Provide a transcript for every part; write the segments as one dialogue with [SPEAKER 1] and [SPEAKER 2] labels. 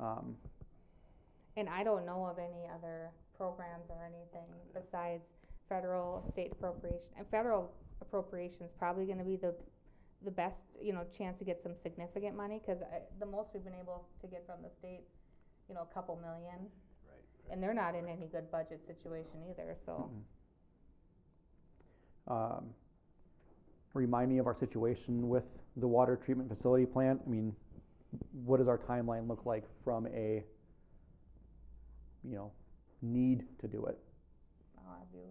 [SPEAKER 1] Um,
[SPEAKER 2] And I don't know of any other programs or anything besides federal, state appropriation, and federal appropriation's probably gonna be the, the best, you know, chance to get some significant money, cause I, the most we've been able to get from the state, you know, a couple million,
[SPEAKER 3] Right.
[SPEAKER 2] and they're not in any good budget situation either, so.
[SPEAKER 1] mm-mm. Um, remind me of our situation with the water treatment facility plant. I mean, what does our timeline look like from a, you know, need to do it?
[SPEAKER 2] I'll have you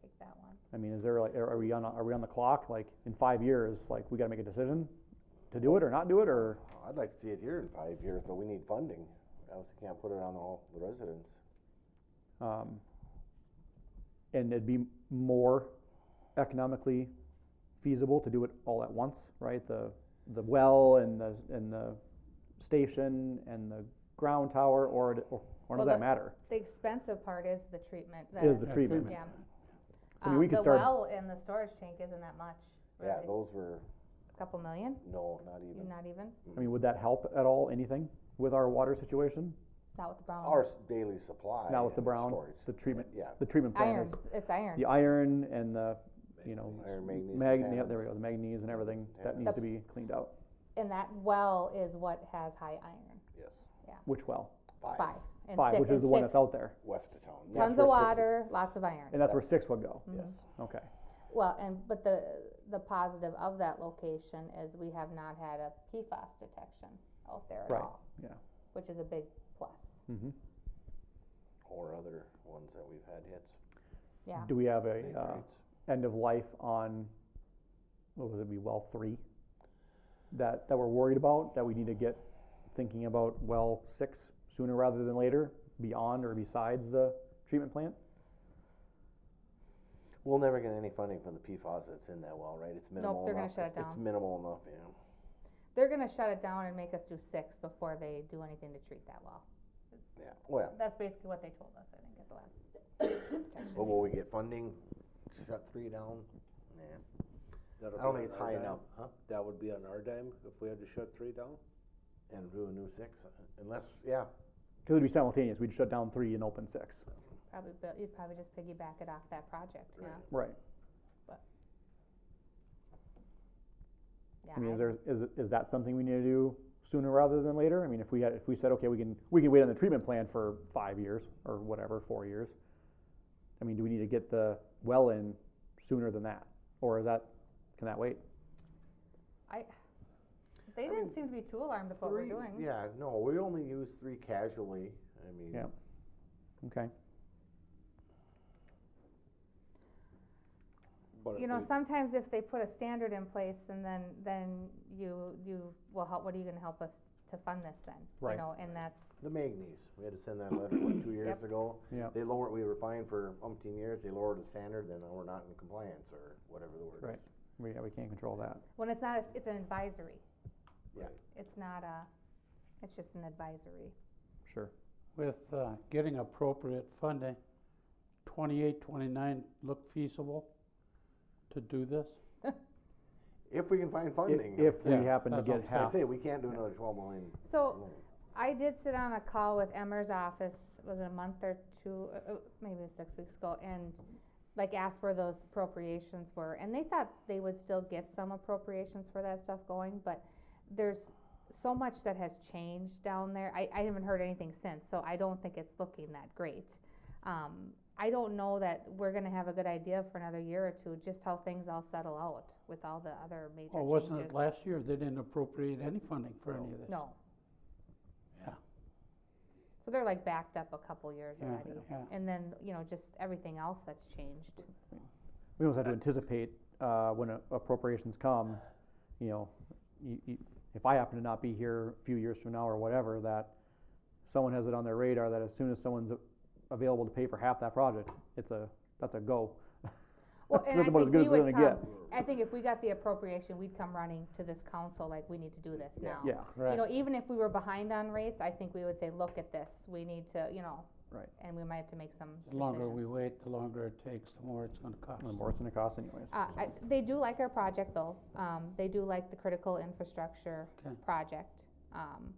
[SPEAKER 2] take that one.
[SPEAKER 1] I mean, is there like, are are we on, a- are we on the clock? Like, in five years, like, we gotta make a decision to do it or not do it, or?
[SPEAKER 3] Oh, I'd like to see it here in five years, but we need funding. I also can't put it on all the residents.
[SPEAKER 1] Um, and it'd be more economically feasible to do it all at once, right? The, the well and the, and the station and the ground tower, or, it- or, or does
[SPEAKER 2] Well,
[SPEAKER 1] that
[SPEAKER 2] the-
[SPEAKER 1] matter?
[SPEAKER 2] The expensive part is the treatment, the,
[SPEAKER 1] Is the treatment.
[SPEAKER 2] yeah.
[SPEAKER 1] So I mean, we
[SPEAKER 2] Um,
[SPEAKER 1] could start-
[SPEAKER 2] The well and the storage tank isn't that much,
[SPEAKER 3] Yeah,
[SPEAKER 2] really,
[SPEAKER 3] those were,
[SPEAKER 2] a couple million,
[SPEAKER 3] no, not even.
[SPEAKER 2] not even,
[SPEAKER 1] I mean, would that help at all, anything, with our water situation?
[SPEAKER 2] not with the brown.
[SPEAKER 3] Our s- daily supply.
[SPEAKER 1] Now with the
[SPEAKER 3] and
[SPEAKER 1] brown,
[SPEAKER 3] storage.
[SPEAKER 1] the treatment,
[SPEAKER 3] Yeah,
[SPEAKER 1] the treatment plan
[SPEAKER 2] Iron,
[SPEAKER 1] is,
[SPEAKER 2] it's iron.
[SPEAKER 1] the iron and the, you know,
[SPEAKER 3] iron, manganese.
[SPEAKER 1] mag,
[SPEAKER 3] and
[SPEAKER 1] yeah, there we
[SPEAKER 3] tannins.
[SPEAKER 1] go, the manganese and everything, that
[SPEAKER 3] Yeah.
[SPEAKER 1] needs to
[SPEAKER 2] The-
[SPEAKER 1] be cleaned out.
[SPEAKER 2] And that well is what has high iron,
[SPEAKER 3] Yes,
[SPEAKER 1] Which well?
[SPEAKER 3] five,
[SPEAKER 2] five. and
[SPEAKER 1] Five,
[SPEAKER 2] six-
[SPEAKER 1] which is
[SPEAKER 2] and
[SPEAKER 1] the one that's
[SPEAKER 2] six.
[SPEAKER 1] out there.
[SPEAKER 3] west of town. That's
[SPEAKER 2] Tons
[SPEAKER 3] where
[SPEAKER 2] of
[SPEAKER 3] six
[SPEAKER 2] water, lots of iron.
[SPEAKER 1] And that's where six would go,
[SPEAKER 3] is- Yes,
[SPEAKER 2] Mhm.
[SPEAKER 1] okay.
[SPEAKER 2] Well, and, but the, the positive of that location is we have not had a PFAS detection out there at
[SPEAKER 1] Right,
[SPEAKER 2] all.
[SPEAKER 1] yeah.
[SPEAKER 2] Which is a big plus,
[SPEAKER 1] Mm-hmm.
[SPEAKER 3] or other ones that we've had hits.
[SPEAKER 2] yeah.
[SPEAKER 1] Do we have a,
[SPEAKER 3] big
[SPEAKER 1] uh,
[SPEAKER 3] rates.
[SPEAKER 1] end of life on, what would it be, well three? That, that we're worried about, that we need to get thinking about well six sooner rather than later, beyond or besides the treatment plant?
[SPEAKER 3] We'll never get any funding for the PFAS that's in that well, right? It's minimal enough.
[SPEAKER 2] they're gonna shut
[SPEAKER 3] It's-
[SPEAKER 2] it
[SPEAKER 3] It's
[SPEAKER 2] down.
[SPEAKER 3] minimal enough, yeah.
[SPEAKER 2] They're gonna shut it down and make us do six before they do anything to treat that well.
[SPEAKER 3] Yeah, well,
[SPEAKER 2] That's basically what they told us, I think, at the last protection
[SPEAKER 3] but
[SPEAKER 2] meeting.
[SPEAKER 3] will we get funding to shut three down? Nah, I don't think it's high enough, huh?
[SPEAKER 4] That would be on our dime if we had to shut three down?
[SPEAKER 3] And do a new six, uh, unless, yeah,
[SPEAKER 1] Cause it'd be simultaneous, we'd shut down three and open six,
[SPEAKER 2] Probably, bu- you'd probably just piggyback it off that project, yeah,
[SPEAKER 3] Right.
[SPEAKER 1] right?
[SPEAKER 2] yeah.
[SPEAKER 1] I mean,
[SPEAKER 2] I-
[SPEAKER 1] is there, is, is that something we need to do sooner rather than later? I mean, if we had, if we said, okay, we can, we can wait on the treatment plan for five years or whatever, four years. I mean, do we need to get the well in sooner than that? Or is that, can that wait?
[SPEAKER 2] They
[SPEAKER 3] I
[SPEAKER 2] didn't
[SPEAKER 3] mean,
[SPEAKER 2] seem to be too alarmed with what we're
[SPEAKER 3] Three-
[SPEAKER 2] doing.
[SPEAKER 3] Yeah, no, we only use three casually, I mean.
[SPEAKER 1] Yeah. Okay.
[SPEAKER 3] But
[SPEAKER 2] You
[SPEAKER 3] if
[SPEAKER 2] know,
[SPEAKER 3] we-
[SPEAKER 2] sometimes if they put a standard in place and then, then you, you, well, how, what are you gonna help us to fund this then?
[SPEAKER 1] Right.
[SPEAKER 2] You know, and that's,
[SPEAKER 3] The manganese, we had to send that letter, what, two years
[SPEAKER 2] Yep.
[SPEAKER 3] ago?
[SPEAKER 1] Yeah.
[SPEAKER 3] They lowered, we were fined for umpteen years, they lowered the standard, then we're not in compliance, or whatever the word is.
[SPEAKER 1] Right. We, yeah, we can't control that.
[SPEAKER 2] when it's not, a- it's an advisory.
[SPEAKER 3] Yeah.
[SPEAKER 2] It's not a, it's just an advisory.
[SPEAKER 1] Sure.
[SPEAKER 5] with uh, getting appropriate funding, 28, 29 look feasible to do this?
[SPEAKER 3] If we can find
[SPEAKER 1] I-
[SPEAKER 3] funding.
[SPEAKER 1] If we
[SPEAKER 5] Yeah,
[SPEAKER 1] happen to
[SPEAKER 5] that's
[SPEAKER 1] get
[SPEAKER 5] what I'm saying.
[SPEAKER 3] I
[SPEAKER 1] half,
[SPEAKER 3] say, we can't do another twelve million.
[SPEAKER 2] So,
[SPEAKER 3] loan.
[SPEAKER 2] I did sit on a call with Emmer's office, was it a month or two, uh, uh, maybe six weeks ago, and like asked where those appropriations were, and they thought they would still get some appropriations for that stuff going, but there's so much that has changed down there, I, I haven't heard anything since, so I don't think it's looking that great. Um, I don't know that we're gonna have a good idea for another year or two, just how things all settle out with all the other major changes.
[SPEAKER 5] Or wasn't it last year, they didn't appropriate any funding for any of this?
[SPEAKER 2] No.
[SPEAKER 5] Yeah.
[SPEAKER 2] So they're like backed up a couple years
[SPEAKER 5] Yeah,
[SPEAKER 2] already.
[SPEAKER 5] yeah.
[SPEAKER 2] And then, you know, just everything else that's changed.
[SPEAKER 1] we almost have to anticipate, uh, when a- appropriations come, you know, you, you, if I happen to not be here a few years from now or whatever, that someone has it on their radar that as soon as someone's a- available to pay for half that project, it's a, that's a go.
[SPEAKER 2] Well, and I
[SPEAKER 1] That's about as
[SPEAKER 2] think
[SPEAKER 1] good
[SPEAKER 2] we
[SPEAKER 1] as it's
[SPEAKER 2] would
[SPEAKER 1] gonna
[SPEAKER 2] come, I think if we got the appropriation, we'd come running to this council like, we need to do this now.
[SPEAKER 1] Yeah,
[SPEAKER 2] You
[SPEAKER 5] Right.
[SPEAKER 2] know, even if we were behind on rates, I think we would say, look at this, we need to, you know.
[SPEAKER 1] Right.
[SPEAKER 2] And we might have to make some
[SPEAKER 5] The longer we
[SPEAKER 2] decisions.
[SPEAKER 5] wait, the longer it takes, the more it's gonna cost.
[SPEAKER 1] and the more it's gonna cost anyways.
[SPEAKER 2] Uh, I, they do like our project though, um, they do like the critical infrastructure
[SPEAKER 5] Okay.
[SPEAKER 2] project, um,